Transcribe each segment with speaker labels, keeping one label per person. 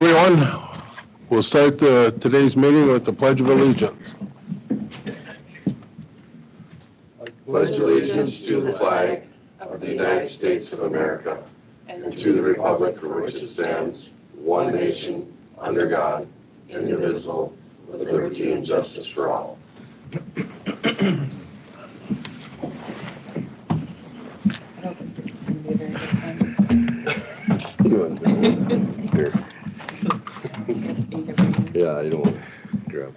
Speaker 1: Everyone, we'll start uh, today's meeting with the Pledge of Allegiance.
Speaker 2: pledge allegiance to the flag of the United States of America and to the republic for which it stands, one nation, under God, indivisible, with liberty and justice for all.
Speaker 3: I don't think this is going to be a very good time.
Speaker 2: Yeah, I don't grab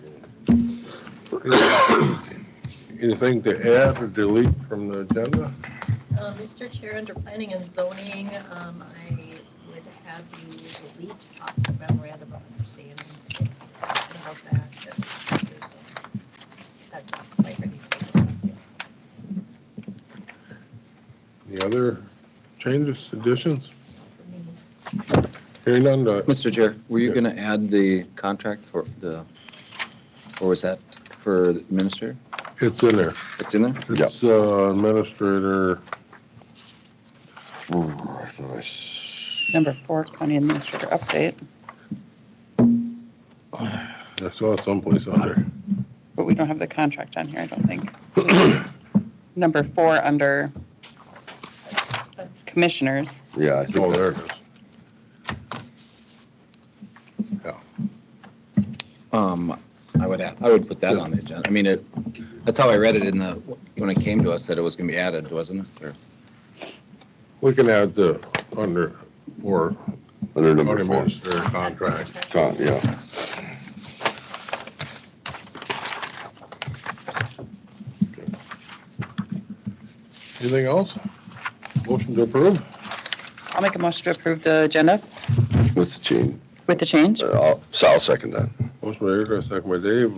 Speaker 1: Anything to add or delete from the agenda?
Speaker 4: Uh, Mr. Chair, under planning and zoning, um, I would have you delete talking about random understanding. Discussion about that, that's- there's a- That's not quite ready to make sense.
Speaker 1: Any other changes, additions?
Speaker 4: For me.
Speaker 1: Hearing none, uh,
Speaker 5: Mr. Chair, were you going to add the contract for the, or was that for the minister?
Speaker 1: it's in there.
Speaker 5: It's in there?
Speaker 1: It's uh, Administrator,
Speaker 2: I thought I s-
Speaker 3: Number four, county administrator update,
Speaker 1: I saw it someplace under.
Speaker 3: but we don't have the contract on here, I don't think. Number four, under commissioners,
Speaker 2: Yeah, I
Speaker 1: Oh,
Speaker 2: think
Speaker 1: there
Speaker 2: that-
Speaker 1: it is.
Speaker 5: Um, I would, add- I would put that on the agenda. I mean, it, that's how I read it in the, when it came to us, that it was going to be added, wasn't it? Or-
Speaker 1: We can add the under, or
Speaker 2: under number four.
Speaker 1: administrator contract.
Speaker 2: Con- Yeah,
Speaker 1: Anything else? Motion to approve?
Speaker 3: I'll make a motion to approve the agenda
Speaker 2: with the chain.
Speaker 3: with the change.
Speaker 2: Uh, I'll- So I'll second that.
Speaker 1: Motion by Erica, second by Dave.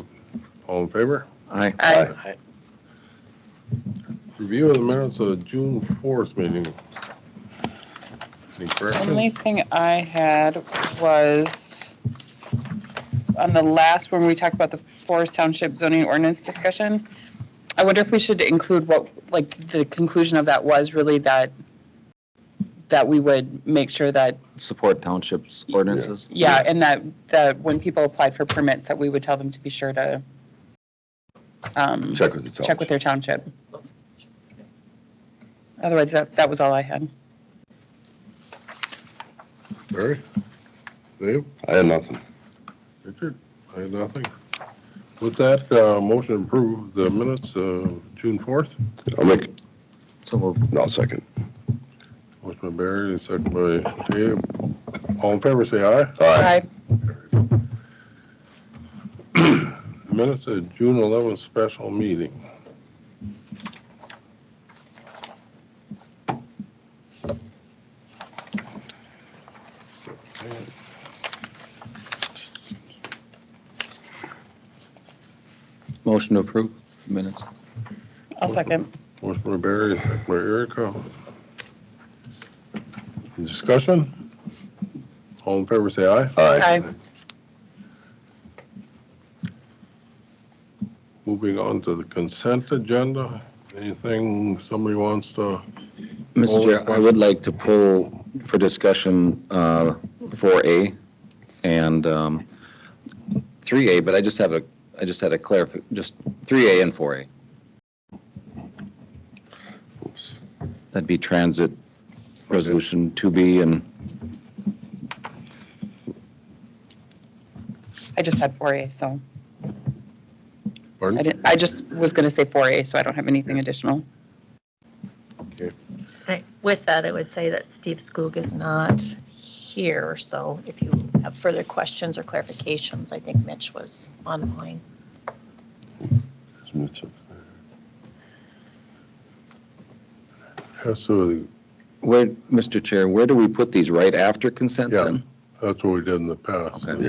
Speaker 1: All in favor?
Speaker 5: Aye.
Speaker 3: Aye.
Speaker 1: Review of the minutes of June fourth meeting. Any
Speaker 3: Only
Speaker 1: corrections?
Speaker 3: thing I had was on the last, when we talked about the Forest Township zoning ordinance discussion, I wonder if we should include what, like, the conclusion of that was really that, that we would make sure that,
Speaker 5: Support townships ordinances?
Speaker 3: yeah, and that, that when people applied for permits, that we would tell them to be sure to um,
Speaker 2: Check with the town.
Speaker 3: check with their township. Otherwise, that, that was all I had.
Speaker 1: Barry? Dave?
Speaker 2: I had nothing.
Speaker 1: Richard? I have nothing. With that, uh, motion to approve the minutes of June fourth.
Speaker 2: I'll make,
Speaker 5: So move.
Speaker 2: no, I'll second.
Speaker 1: Motion by Barry, second by Dave. All in favor, say aye.
Speaker 2: Aye.
Speaker 1: Minutes of June eleventh special meeting.
Speaker 5: Motion to approve minutes.
Speaker 3: I'll second.
Speaker 1: Motion by Barry, second by Erica. Discussion? All in favor, say aye.
Speaker 2: Aye.
Speaker 3: Aye.
Speaker 1: Moving on to the consent agenda, anything somebody wants to,
Speaker 5: Mr. Chair, I would like to pull for discussion uh, 4A and um, 3A, but I just have a, I just had a clarif, just 3A and 4A.
Speaker 2: Oops.
Speaker 5: That'd be transit resolution 2B and,
Speaker 3: I just had 4A, so I
Speaker 1: pardon?
Speaker 3: didn't, I just was going to say 4A, so I don't have anything additional.
Speaker 4: Right. With that, I would say that Steve Skoog is not here, so if you have further questions or clarifications, I think Mitch was online.
Speaker 1: That's what,
Speaker 5: where, Mr. Chair, where do we put these? Right after consent
Speaker 1: Yeah.
Speaker 5: then?
Speaker 1: that's what we did in the past.
Speaker 5: Okay.